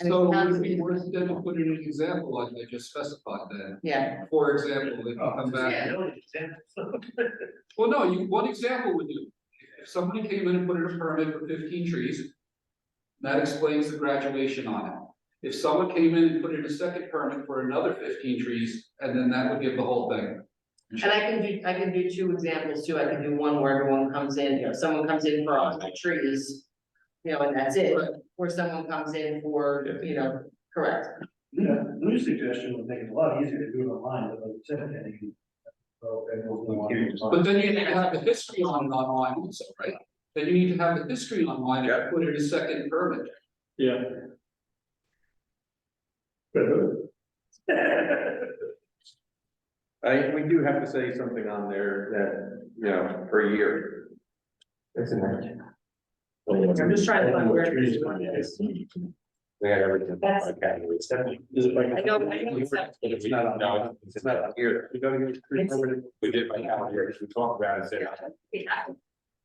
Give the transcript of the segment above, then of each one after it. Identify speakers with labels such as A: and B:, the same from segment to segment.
A: And
B: So
A: it's
B: we-
A: not-
B: we're going to put in an example like I just specified then.
A: Yeah,
B: For example, they
C: Oh,
B: can come back, well, no, you, one example would do? If somebody came in and put in a permit for fifteen trees. That explains the graduation on it. If someone came in and put in a second permit for another fifteen trees, and then that would give the whole thing.
A: and I can do, I can do two examples too, I can do one where everyone comes in, you know, someone comes in for all the trees. You know, and that's it,
B: Right.
A: or someone comes in for, you know, correct,
C: Yeah, new suggestion would make it a lot easier to do it online, but like you said, then you can. So then we'll go on.
B: But then you have the history on it online also, right? Then you need to have the history online and put in a second permit.
D: Yeah. I, we do have to say something on there that, you know, per year.
E: It's in there.
A: I'm just trying to find where this one is.
E: We had everything.
A: That's-
E: Okay, it's definitely-
D: Is it like?
A: I don't- I don't accept it.
E: It's not on, no, it's not on here.
D: You gotta give it three over to-
E: We did by now, here, we talked about it, said-
A: Yeah.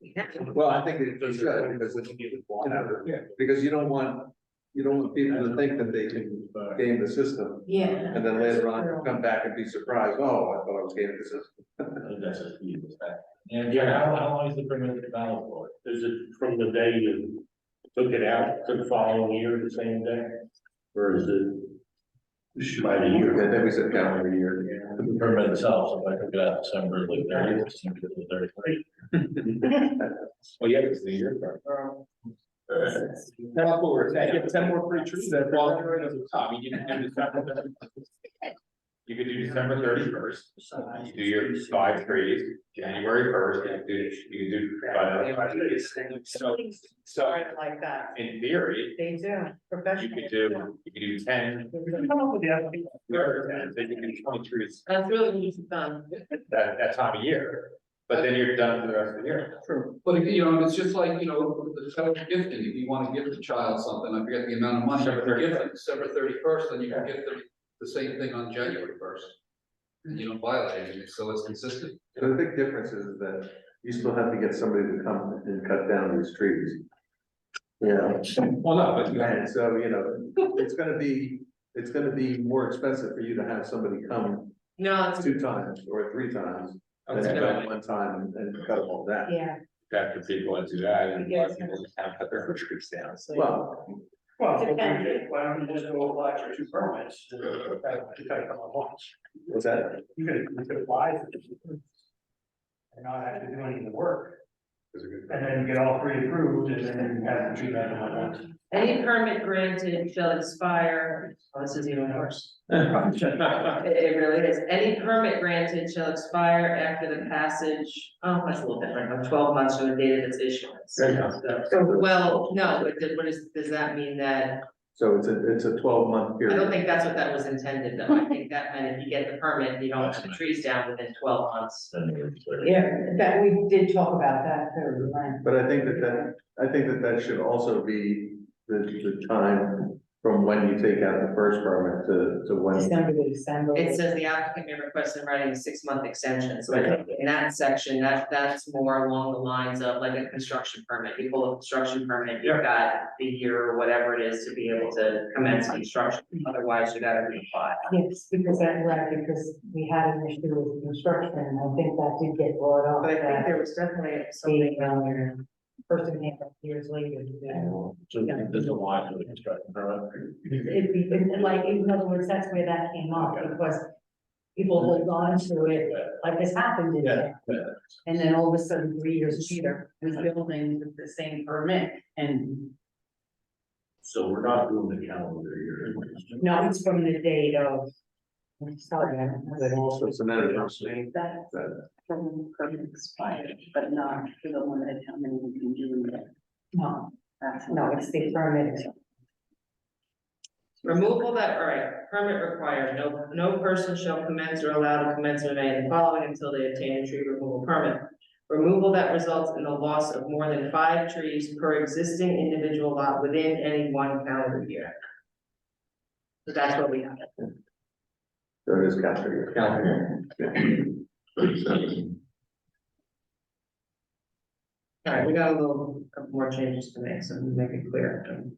A: Yeah.
E: well, I think it it should, because it's, you know, because you don't want, you don't want people to think that they can uh, game the system.
A: Yeah.
E: And then later on, come back and be surprised, oh, I thought I was gaming the system.
F: That's just me, it's that. And yeah, how, how long is the permit valid for? Is it from the day you took it out to the following year, the same day? Or is it by the
E: Yeah,
F: year,
E: then we sit down every year.
F: the permit itself, if I took it out December, like thirty, December the thirty-three?
G: "Oh,
E: Well, yeah, it's the year.
D: Now, forward, I get ten more free trees that fall right at the top, you can do December.
G: You could do December thirty first, you do your five trees, January first, you do, you do. five trees. So, so
A: like that,
G: in theory,
A: they do,
G: you
A: professional.
G: could do, you could do ten,
C: Come up with the application.
G: or ten, then you can do twenty trees
A: That's really easy done,
G: that, that time of year. But then you're done for the rest of the year.
B: But if, you know, it's just like, you know, the federal gifting, if you wanna give the child something, I forget the amount of money, but
G: December
B: you give them December thirty first, then you can give them the same thing on January first. And you don't violate anything, so it's consistent.
E: So the big difference is that you still have to get somebody to come and cut down these trees. Yeah,
G: Well, no, but you had,
E: and so, you know, it's gonna be, it's gonna be more expensive for you to have somebody come
A: no, it's,
E: two times or three times. Than to come one time and cut them all down.
A: yeah,
G: that the people that do that, and a lot of people just have cut their own trees down.
E: Well,
C: Well, if we did, why don't you just go apply for two permits? You gotta come at once.
E: what's that?
C: You could, you could apply for two permits. And not have to do any of the work, and then get all three approved, and then you have to do that all at once.
A: any permit granted shall expire, oh, this is even worse. It, it really is. Any permit granted shall expire after the passage, oh, that's a little different, of twelve months from the date of its issuance.
G: There you go.
A: So, well, no, but did- what is, does that mean that,
E: So it's a, it's a twelve month
A: I don't
E: period.
A: think that's what that was intended, though. I think that meant if you get the permit, you don't have the trees down within twelve months.
H: Yeah, that, we did talk about that, too, right?
E: But I think that that, I think that that should also be the, the time from when you take out the first permit to, to when.
H: December to December.
A: It says the applicant may request in writing a six-month extension, so I think in that section, that, that's more along the lines of like a construction permit. You pull a construction permit, you've got the year or whatever it is to be able to commence construction, otherwise you gotta reapply.
H: Yes, because that, right, because we had an issue with construction, and I think that did get brought up,
A: But I think
H: that
A: there was definitely
H: being,
A: something,
H: um, person came up years later. to do.
F: So there's a line for the construction permit.
H: It, it, it- like, in other words, that's where that came up, because people hold on to it, like this happened in there. And then all of a sudden, three years later, this building with the same permit, and
F: So we're not doing the calendar year.
H: now it's from the date of. I'm sorry, I don't have it all.
E: So it's another conversation.
I: That
E: That-
I: from permit expired, but not for the limited how many we can do in there. Um,
H: No,
I: That's
H: no, it's the permit.
A: removal that, all right, permit required, no, no person shall commence or allow to commence or any of the following until they obtain a tree removal permit. Removal that results in the loss of more than five trees per existing individual lot within any one calendar year. So that's what we have.
E: So it is counter.
A: All right, we got a little more changes to make, so we make it clear.